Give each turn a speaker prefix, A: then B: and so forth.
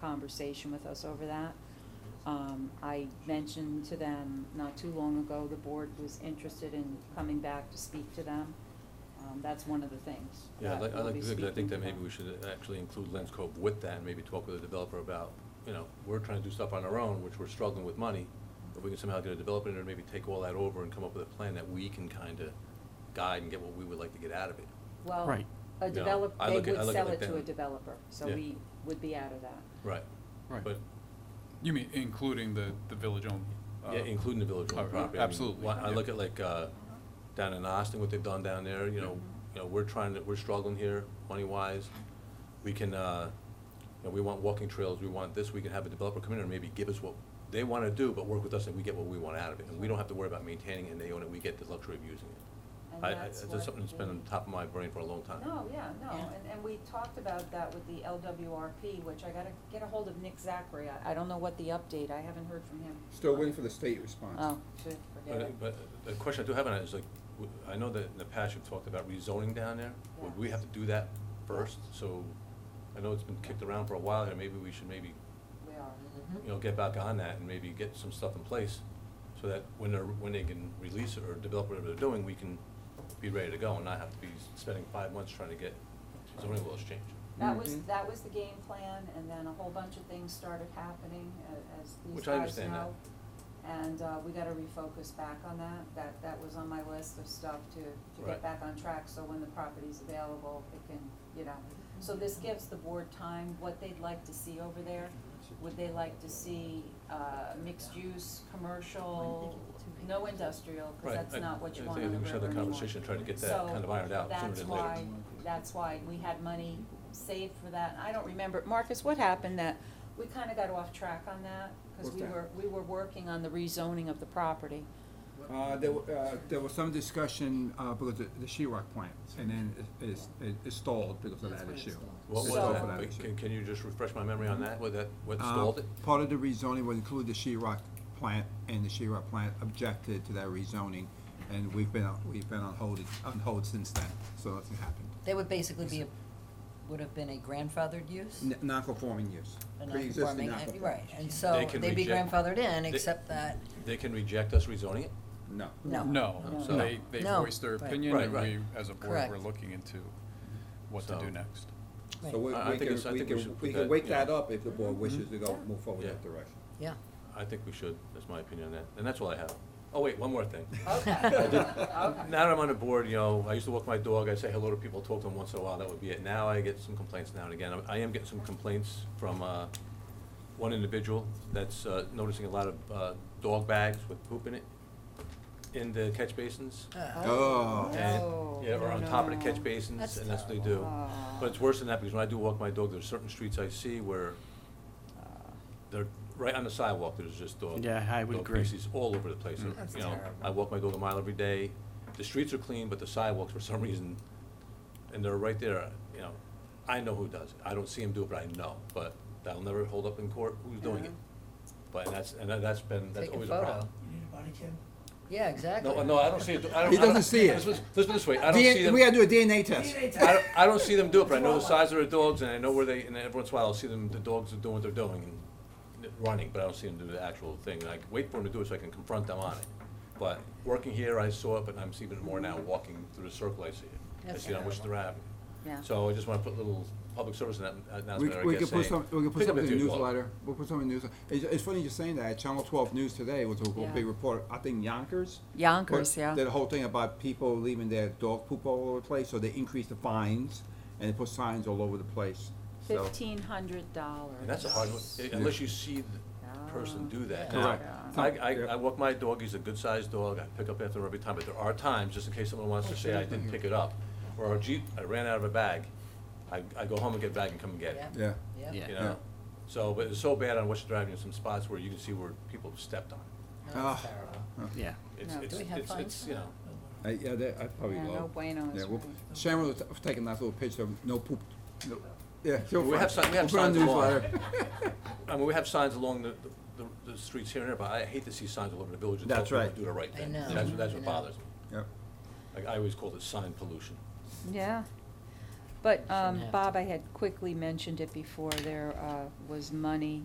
A: conversation with us over that. Um, I mentioned to them not too long ago, the board was interested in coming back to speak to them. Um, that's one of the things.
B: Yeah, I
A: that
B: like, I
A: we'll
B: like,
A: be
B: to think- I
A: speaking
B: think that
A: to
B: maybe
A: them.
B: we should actually include Lens Cove with that, and maybe talk with the developer about, you know, we're trying to do stuff on our own, which we're struggling with money. If we can somehow get a developer in there, maybe take all that over and come up with a plan that we can kinda guide and get what we would like to get out of it.
A: Well,
C: Right.
A: a
B: No,
A: develop,
B: I
A: they
B: look at- I
A: would
B: look at
A: sell
B: like
A: it to
B: that.
A: a developer, so
B: Yeah.
A: we would be out of that.
B: Right.
C: Right.
B: But,
D: You mean including the, the village-owned? uh,
B: yeah, including the village
D: oh,
B: owned property. I mean,
D: Absolutely.
B: why- I
D: yeah.
B: look at like, uh, down in Austin, what they've done down there, you know, you know, we're trying to, we're struggling here, money-wise. We can, uh, you know, we want walking trails, we want this, we can have a developer come in and maybe give us what they wanna do, but work with us and we get what we want out of it. And we don't have to worry about maintaining it, and they own it, we get the luxury of using it.
A: And
B: I, I,
A: that's
B: that's
A: what
B: something that's been on
A: the-
B: top of my brain for a long time.
A: No, yeah, no,
E: Yeah.
A: and, and we talked about that with the LWRP, which I gotta get a hold of Nick Zachary, I, I don't know what the update, I haven't heard from him.
F: Still waiting for the state response.
A: Oh, should, forget it.
B: But, but the question I do have on it is like, w- I know that in the past you've talked about rezoning down there. Would we have to do that first? So I know it's been kicked around for a while here. Maybe we should maybe,
A: We are.
B: you know, get back on that and maybe get some stuff in place so that when they're, when they can release it or develop whatever they're doing, we can be ready to go and not have to be spending five months trying to get zoning laws changed.
A: That was,
B: Mm-hmm.
F: Mhm.
A: that was the game plan, and then a whole bunch of things started happening, a- as these
B: Which
A: guys
B: I
A: know.
B: understand that.
A: And, uh, we gotta refocus back on that, that, that was on my list of stuff to, to get
B: Right.
A: back on track, so when the property's available, it can, you know. So this gives the board time, what they'd like to see over there, would they like to see, uh, mixed use, commercial, no industrial, cause
B: Right,
A: that's
B: I-
A: not what you
B: I
A: want
B: think-
A: on the river
B: I think we should have the
A: anymore.
B: conversation, and try to get that kind of ironed out sooner
A: So,
B: than later.
A: that's why, that's why we had money saved for that, I don't remember, Marcus, what happened that, we kinda got off track on that, cause
F: What's
A: we
F: that?
A: were, we were working on the rezoning of the property.
F: Uh, there, wa- uh, there was some discussion, uh, because of the sheetrock plant, and then it, it's- it- it stalled because of
E: That's
F: that
E: why it
F: issue.
E: stalled.
B: What was
F: It stalled
A: So-
F: for that
B: that?
F: issue.
B: Can, can you just refresh my memory on that? What that, what
F: Uh,
B: stalled it?
F: Part of the rezoning would include the sheetrock plant, and the sheetrock plant objected to that rezoning, and we've been, on- we've been on hold, on hold since then, so nothing happened.
E: They would basically be, a would have been a grandfathered use?
F: N- Non-conforming use,
E: A
F: pre-existing
E: non-conforming, and-
F: non-conforming.
E: Right, and so
B: can
E: they'd be
B: reject-
E: grandfathered in,
B: they-
E: except that,
B: They can reject us rezoning it?
F: No.
E: no.
D: No,
B: No.
D: they, they
E: No.
D: voiced their
E: Right.
D: opinion,
B: Right,
D: and
B: right.
D: we, as a board,
E: Correct.
D: we're looking into what to
B: So-
D: do next.
E: Right.
F: So we,
B: I- I
F: we
B: think
F: can,
B: it's- I
F: we
B: think we
F: can,
B: should put
F: we
B: that,
F: can wake
B: you
F: that
B: know.
F: up if the board wishes to go,
E: Mm-hmm.
A: Yeah.
F: move forward in that
B: Yeah.
F: direction.
E: Yeah.
B: I think we should, that's my opinion on that, and that's all I have. Oh, wait, one more thing.
A: Okay,
B: did-
A: okay.
B: Now that I'm on the board, you know, I used to walk my dog, I say hello to people, talk to them once in a while, that would be it. Now I get some complaints now and again. I am getting some complaints from, uh, one individual that's, uh, noticing a lot of, uh, dog bags with poop in it in the catch basins.
E: Uh,
F: Oh.
B: And,
A: Oh,
B: yeah, or on top of the
A: no.
B: catch basins,
E: That's
B: and that's what they do.
A: terrible. Ah.
B: But it's worse than that, because when I do walk my dog, there's certain streets I see where
A: Uh,
B: they're, right on the sidewalk, there's just dog.
C: Yeah, I would
B: dog
C: agree.
B: feces all over the place,
C: Mm.
E: That's
B: you know,
E: terrible.
B: I walk my dog a mile every day, the streets are clean, but the sidewalks, for some reason, and they're right there, you know, I know who does it, I don't see him do it, but I know, but that'll never hold up in court, who's doing it? But that's, and that- that's been, that's
E: Take a
B: always a
E: photo.
B: problem.
E: Yeah, exactly.
B: No, no, I don't see it, I don't.
F: He
B: I don't-
F: doesn't see it.
B: Let's, let's put it this way, I don't see
F: DNA,
B: them.
F: we gotta do a DNA test.
B: I don't, I don't see them do it, but I know the size of their dogs, and I know where they, and every once in a while, I'll see them, the dogs are doing what they're doing and running, but I don't see them do the actual thing, and I wait for them to do it so I can confront them on it. But working here, I saw it, but I'm seeing it more now, walking through the circle, I see it, I
E: That's
B: see it on Worcester Avenue.
A: Yeah.
B: So I just wanna put a little public service annou-
F: We,
B: announcement,
F: we
B: I
F: could
B: guess,
F: put some,
B: saying,
F: we could put
B: pick up
F: something
B: the
F: in the
B: two dogs.
F: newsletter, we'll put something in the news, it's, it's funny you're saying that, Channel twelve news today was a a
A: Yeah.
F: big report, I think Yonkers.
A: Yonkers,
F: put-
A: yeah.
F: Did a whole thing about people leaving their dog poop all over the place, so they increased the fines, and they put signs all over the place, so.
A: Fifteen hundred dollars.
B: And that's a hard one, unless you see the person do that. Now,
F: Correct.
B: I, I, I walk my dog, he's a good-sized dog, I pick up after him every time, but there are times, just in case someone wants to say I didn't pick it up, or a Jeep, I ran out of a bag, I, I go home and get a bag and come and get it,
F: Yeah,
E: Yeah.
B: you
F: Yeah.
B: know? So, but it's so bad on Westchester Avenue, some spots where you can see where people stepped on it.
E: No, it's
F: Ah.
E: terrible.
C: Yeah.
B: It's,
A: No. Do
B: it's,
E: we have
B: it's,
E: fines
B: it's,
E: for
B: you
E: that?
B: know,
F: I, yeah, that, I probably
A: Yeah,
F: low.
A: no bueno is
F: Yeah, we'll,
A: right.
F: Sharon was taking that little picture of no poop, no, yeah. she'll
B: We
F: find
B: have
F: it.
B: some- we have
F: We'll put it on the
B: signs along.
F: newsletter.
B: I mean, we have signs along the, the, the streets here and there, but I hate to see signs all over the village that tell
F: That's
B: people to
F: right.
B: do the right
E: I
B: thing.
E: know,
B: That's, what- that's
E: I
B: what
E: know.
B: bothers me.
F: Yep.
B: Like, I always called it sign pollution.
A: Yeah. But,
E: Shouldn't
A: um,
E: have to.
A: Bob, I had quickly mentioned it before, there, uh, was money